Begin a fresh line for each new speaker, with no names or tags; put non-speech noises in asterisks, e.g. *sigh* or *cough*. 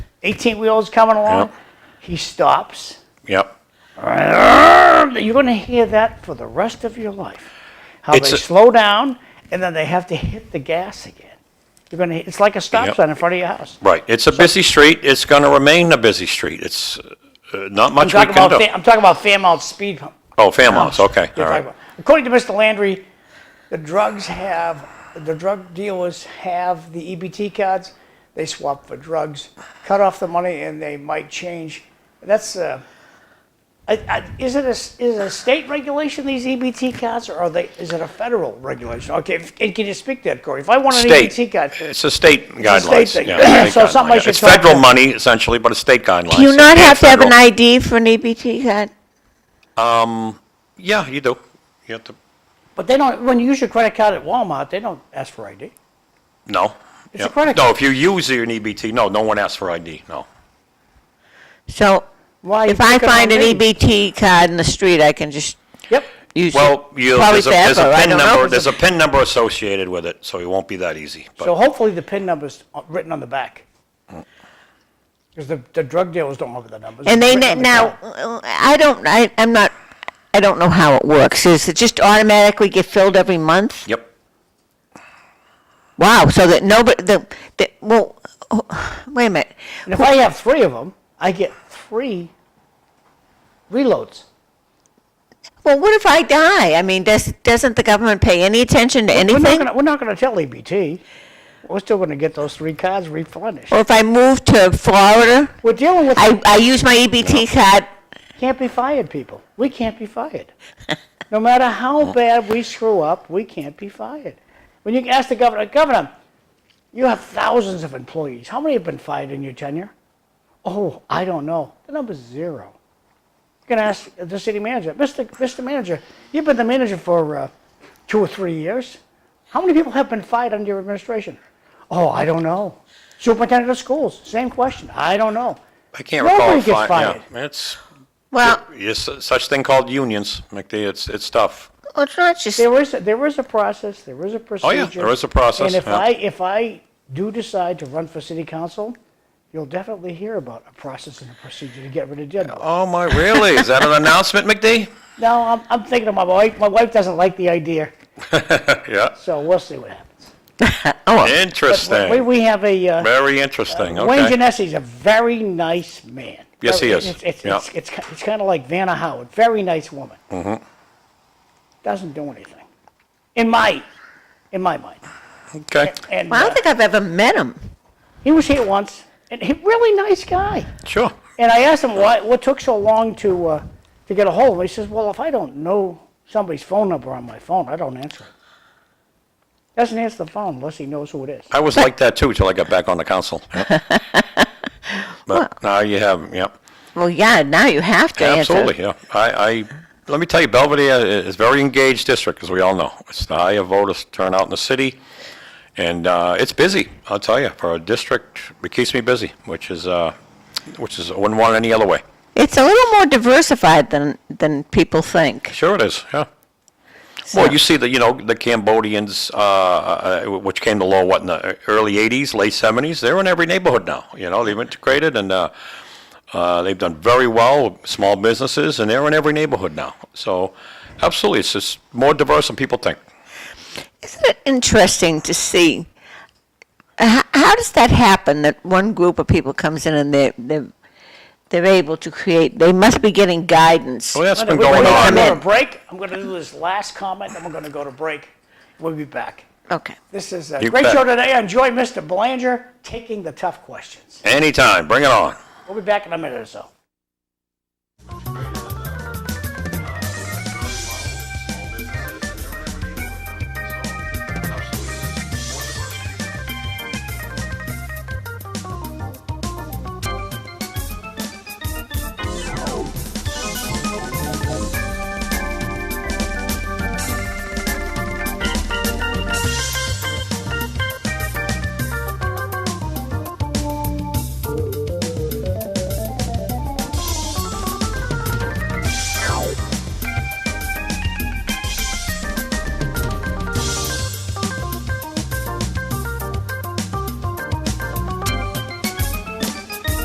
18 wheelers coming along.
Yeah.
He stops.
Yep.
You're going to hear that for the rest of your life. How
It's
they
a-
slow down and then they have to hit the gas again. You're going to, it's like a stop
Yep.
sign in front of your house.
Right. It's a busy street. It's going to remain a busy street. It's uh, not
I'm
much we
talking
can
about,
do.
Fa- I'm talking about Fairmount speed hump.
Oh, Fairmount's, okay,
You're talking
all right.
about- According to Mr. Landry, the drugs have, the drug dealers have the EBT cards. They swap for drugs, cut off the money, and they might change. That's, uh, I, I, is it a, s- is it a state regulation, these EBT cards, or are they, is it a federal regulation? Okay, if- and can you speak to that, Corey? If I want an
State.
EBT card,
It's a state
state
guidelines.
thing.
yeah,
*laughs*
state
So something I
guidelines.
should
It's
talk
federal
to-
money essentially, but it's state guidelines.
Do you not
and
have to have an
federal.
ID for an EBT card?
Yeah, you do. You have to,
but they don't, when you use your credit card at Walmart, they don't ask for ID.
no.
It's a
Yeah.
credit
No,
card.
if you use your EBT, no, no one asks for ID, no.
So
Why you
if I
picking on
find an
me?
EBT card in the street, I can just
Yep.
use it.
Well, you,
Probably
there's a, there's a
forever, I
PIN
don't know.
number, there's a PIN number associated with it, so it won't be that easy. but-
So hopefully the PIN number's written on the back. Because the, the drug dealers don't have the numbers.
And
It's
they,
written on
ne-
the
now,
card.
I don't, I, I'm not, I don't know how it works. Is it just automatically get filled every month?
Yep.
Wow, so that nobody, the, the, well, *sighs* oh, wait a minute.
And if I have three of them, I get three reloads.
Well, what if I die? I mean, does, doesn't the government pay any attention to
We're not
anything?
gonna, we're not gonna tell EBT. We're still gonna get those three cards replenished.
Or if I move to Florida,
We're dealing with,
I, I use my EBT card,
can't be fired, people. We can't be fired. No matter how bad we screw up, we can't be fired. When you ask the governor, Governor, you have thousands of employees. How many have been fired in your tenure? Oh, I don't know. The number's zero. You can ask the city manager, Mr. Mr. Manager, you've been the manager for uh, two or three years. How many people have been fired under your administration? Oh, I don't know. Superintendent of schools, same question. I don't know.
I can't
Nobody
recall.
gets
fi-
fired.
Yeah, it's,
well,
it's such thing called unions, McD, it's, it's tough.
it's not just,
There is, there is a process, there is a procedure.
Oh, yeah, there is a process,
And if
yeah.
I, if I do decide to run for city council, you'll definitely hear about a process and a procedure to get rid of Jed.
Oh, my, really? Is that an announcement, McD?
No, I'm, I'm thinking of my wife, my wife doesn't like the idea,
Yeah,
so we'll see what happens.
oh,
But we,
interesting,
we have a, uh,
very interesting,
Wayne
okay.
Genesi's a very nice man.
Yes, he
Very-
is.
It's, it's,
Yeah.
it's, it's, ki- it's kind of like Vanna Howard, very nice woman.
Mm-hmm.
Doesn't do anything, in my, in my mind.
Okay,
And
well, I
uh,
don't think I've ever met him.
he was here once, and he really nice guy.
sure.
And I asked him why, what took so long to, uh, to get a hold of him. He says, well, if I don't know somebody's phone number on my phone, I don't answer it. Doesn't answer the phone unless he knows who it is.
I was like that too till I got back on the *laughs* council. Yeah. But now you have, yeah,
Well, yeah, now you have to answer.
absolutely, yeah. I, I, let me tell you, Belvedere is a very engaged district, as we all know. It's the higher voter turnout in the city, and uh, it's busy, I'll tell you, for a district, it keeps me busy, which is, uh, which is, I wouldn't want it any other way.
It's a little more diversified than, than people think.
Sure it is, yeah.
so-
Well, you see the, you know, the Cambodians, uh, uh, uh, which came to law, what, in the early 80s, late 70s, they're in every neighborhood now, you know, they've integrated and uh, uh, they've done very well, small businesses, and they're in every neighborhood now. So absolutely, it's just more diverse than people think.
Isn't it interesting to see? How, how does that happen? That one group of people comes in and they they they're able to create. They must be getting guidance.
Well, that's been
We're
going
wait,
gonna
come
go
on.
in.
to break. I'm going to do this last comment, then we're going to go to break. We'll be back.
Okay.
This is a
You
great
bet.
show today. I enjoy Mr. Belanger taking the tough questions.
Anytime, bring it on.
We'll be back in a minute or so.